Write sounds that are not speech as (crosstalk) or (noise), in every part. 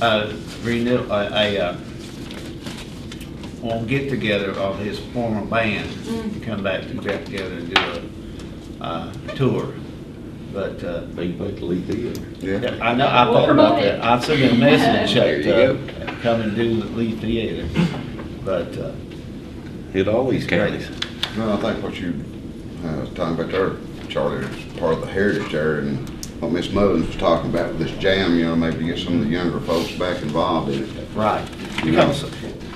uh, renew, a, a, uh, won't get together of his former band, Mm. come back to get together and do a, uh, tour. But, uh, Big Buck Lee Theater. Yeah. I know, I We'll thought about promote it. that, I sent him (laughs) a message, There you that, uh, come and do the Lee Theater, but, uh, Hit all these counties. No, I think what you, uh, was talking about there, Charlie, is part of the heritage there and what Miss Mullins was talking about with this jam, you know, maybe get some of the younger folks back involved in it. Right, You because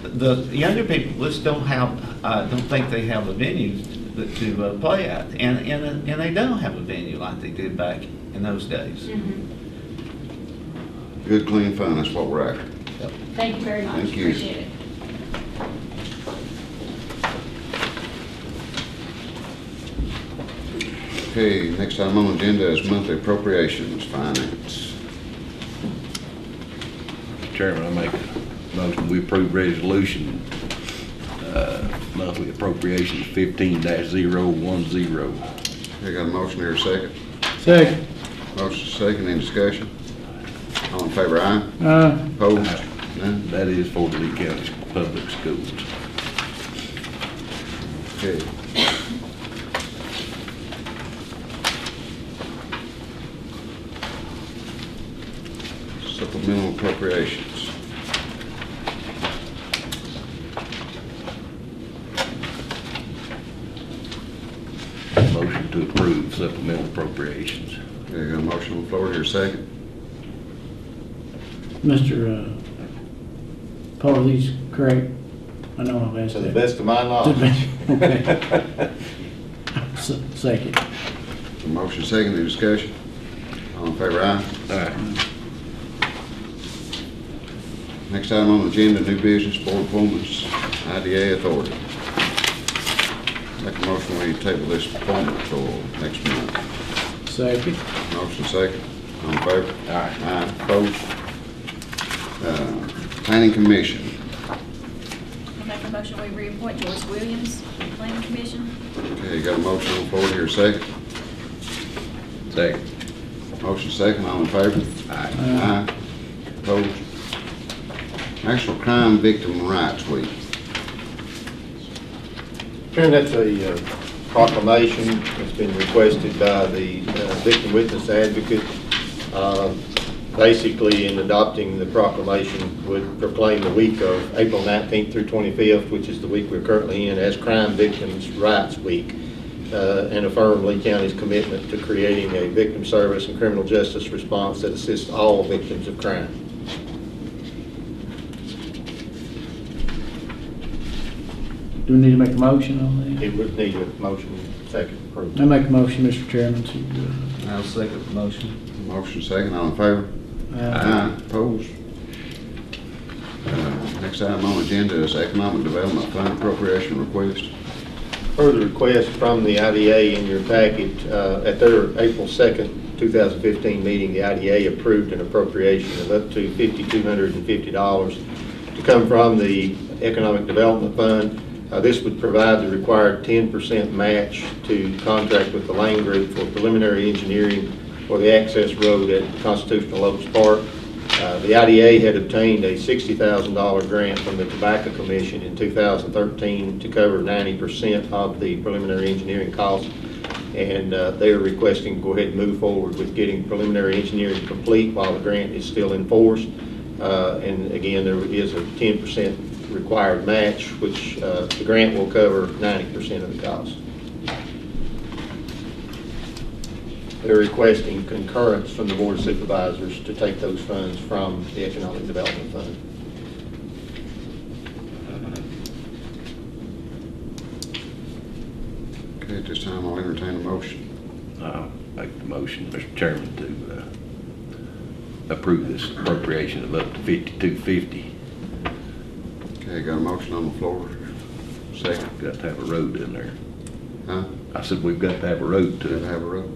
know. the younger people just don't have, uh, don't think they have the venues that to uh, play at, and, and, and they don't have a venue like they did back in those days. Mhm. Good, clean fun, that's what we're after. Thank you very much, Thank you. appreciate it. Okay, next item on the agenda is monthly appropriations, finance. Chairman, I make a motion, we approve resolution, uh, monthly appropriations fifteen dash zero one zero. I got a motion here, a second. Second. Motion second, any discussion? All in favor, aye? Uh, Opposed? None? That is for the Lee County Public Schools. Okay. Supplemental appropriations. Motion to approve supplemental appropriations. Okay, got a motion on the floor here, a second. Mr. uh, Police, correct? I know I've asked To the that. best of my knowledge. To the best, (laughs) (laughs) S- Second. A motion second, any discussion? All in favor, aye? All right, Next item on the agenda, new business, board appointments, IDA authority. Make a motion, we table this appointment till next month. Second. Motion second, all in favor? Aye. Aye, opposed? Uh, Planning commission, I make a motion, we reappoint Joyce Williams to the planning commission. okay, got a motion on the floor here, second. second. Motion second, all in favor? Aye. Aye, opposed? National Crime Victim Rights Week, Karen, that's a uh, proclamation that's been requested by the uh, victim witness advocate. Uh, Basically, in adopting the proclamation, would proclaim the week of April 19th through 25th, which is the week we're currently in, as Crime Victims' Rights Week, uh, and affirm Lee County's commitment to creating a victim service and criminal justice response that assists all victims of crime. Do we need to make a motion on that? It would need a motion, second, approved. I make a motion, Mr. Chairman, to, I'll second the motion. motion second, all in favor? uh, uh, Aye, opposed? Uh, Next item on the agenda is Economic Development Fund appropriation request. further request from the IDA in your packet. uh, At their April 2nd, 2015 meeting, the IDA approved an appropriation of up to $5,250 to come from the Economic Development Fund. Uh, This would provide the required 10% match to contract with the Lane Group for preliminary engineering for the access road at Constitutional Oaks Park. Uh, The IDA had obtained a $60,000 grant from the Tobacco Commission in 2013 to cover 90% of the preliminary engineering costs, and uh, they are requesting to go ahead and move forward with getting preliminary engineering complete while the grant is still in force. Uh, And again, there is a 10% required match, which uh, the grant will cover 90% of the cost. They're requesting concurrence from the Board of Supervisors to take those funds from the Economic Development Fund. Okay, at this time, I'll entertain a motion. I'll make the motion, Mr. Chairman, to uh, approve this appropriation of up to fifty-two fifty. Okay, got a motion on the floor. Second, Got to have a road in there. huh? I said, we've got to have a road Did to it. have a roll?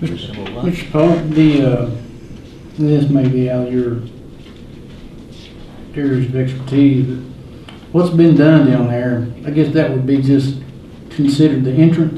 Mr. Pope, the, uh, this may be out of your areas of expertise, but what's been done down there, I guess that would be just considered the entrance